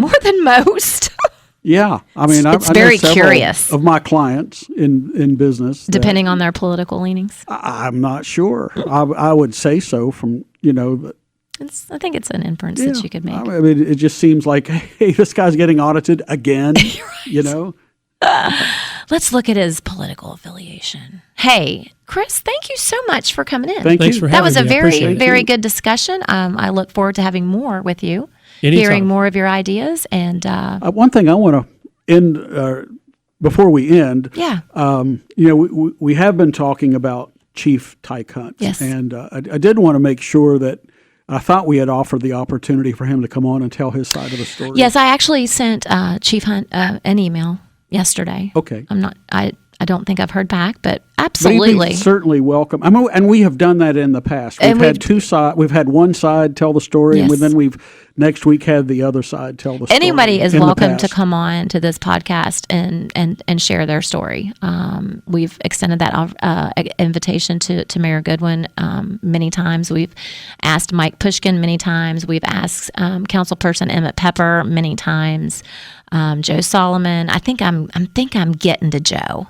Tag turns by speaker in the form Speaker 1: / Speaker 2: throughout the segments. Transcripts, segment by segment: Speaker 1: more than most,
Speaker 2: Yeah, I mean, I,
Speaker 1: It's
Speaker 2: I know
Speaker 1: very
Speaker 2: several
Speaker 1: curious.
Speaker 2: of my clients in in business. that
Speaker 1: depending on their political leanings.
Speaker 2: I, I'm not sure. I, I would say so from you know. but-
Speaker 1: It's, I think it's an inference
Speaker 2: yeah,
Speaker 1: that you could make.
Speaker 2: I mean, it just seems like hey, this guy's getting audited again. You know,
Speaker 1: Let's look at his political affiliation. Hey, Chris, thank you so much for coming in.
Speaker 2: thank
Speaker 3: Thanks
Speaker 2: you.
Speaker 3: for
Speaker 1: that
Speaker 3: having
Speaker 1: was a
Speaker 3: me. I
Speaker 1: very,
Speaker 3: appreciate it.
Speaker 1: very good discussion. Um, I look forward to having more with you,
Speaker 3: Anytime.
Speaker 1: hearing more of your ideas, and uh,
Speaker 2: Uh, one thing I want to end uh, before we end.
Speaker 1: yeah,
Speaker 3: Uh,
Speaker 2: Um, you know, we- we, we have been talking about Chief Tyke Hunt.
Speaker 1: Yes.
Speaker 2: And uh, I, I did want to make sure that I thought we had offered the opportunity for him to come on and tell his side of the story.
Speaker 1: yes. I actually sent uh, Chief Hunt uh, an email yesterday.
Speaker 2: Okay.
Speaker 1: I'm not. I I don't think I've heard back, but
Speaker 2: But he'd be
Speaker 1: absolutely.
Speaker 2: certainly welcome. I mean, and we have done that in the past. We've
Speaker 1: And
Speaker 2: had
Speaker 1: we've-
Speaker 2: two side. We've had one side tell the story,
Speaker 1: Yes.
Speaker 2: and then we've next week had the other side tell the story.
Speaker 1: Anybody is
Speaker 2: in the
Speaker 1: welcome to
Speaker 2: past.
Speaker 1: come on to this podcast and and and share their story. Um, we've extended that uh, invitation to to Mayor Goodwin um, many times. We've asked Mike Pushkin many times. We've asked um, Councilperson Emmett Pepper many times. Um, Joe Solomon. I think I'm. I think I'm getting to Joe.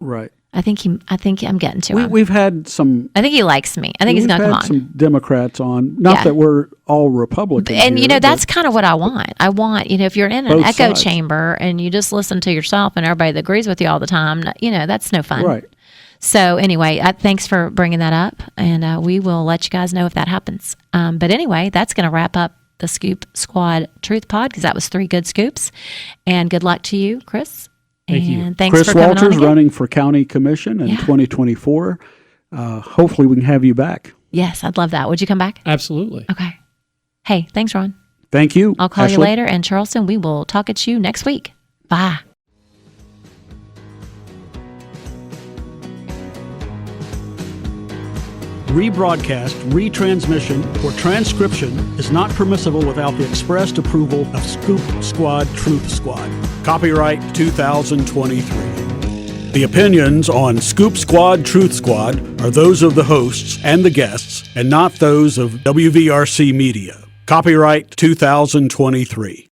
Speaker 2: Right.
Speaker 1: I think he. I think I'm getting to
Speaker 2: We,
Speaker 1: him.
Speaker 2: we've had some.
Speaker 1: I think he likes me. I think he's
Speaker 2: we've
Speaker 1: gonna
Speaker 2: had
Speaker 1: come on.
Speaker 2: some Democrats on. Not
Speaker 1: Yeah.
Speaker 2: that we're all Republicans.
Speaker 1: and you
Speaker 2: here,
Speaker 1: know
Speaker 2: but-
Speaker 1: that's kind of what I want. I want you know if you're in an
Speaker 2: Both
Speaker 1: echo
Speaker 2: sides.
Speaker 1: chamber and you just listen to yourself and everybody that agrees with you all the time, you know that's no fun.
Speaker 2: right.
Speaker 1: So anyway, I, thanks for bringing that up, and uh, we will let you guys know if that happens. Um, but anyway, that's going to wrap up the Scoop Squad Truth Pod because that was three good scoops, and good luck to you, Chris.
Speaker 3: Thank you.
Speaker 1: and thanks
Speaker 2: Chris
Speaker 1: for coming on
Speaker 2: Walters
Speaker 1: again.
Speaker 2: running for county commission in 2024. Uh, hopefully, we can have you back.
Speaker 1: Yes, I'd love that. Would you come back?
Speaker 3: Absolutely.
Speaker 1: Okay. Hey, thanks, Ron.
Speaker 2: Thank you.
Speaker 1: I'll call you
Speaker 2: Ashley.
Speaker 1: later. And Charleston, we will talk at you next week. Bye.
Speaker 2: Rebroadcast, retransmission, or transcription is not permissible without the expressed approval of Scoop Squad Truth Squad. Copyright 2023. The opinions on Scoop Squad Truth Squad are those of the hosts and the guests, and not those of WVRC Media. Copyright 2023.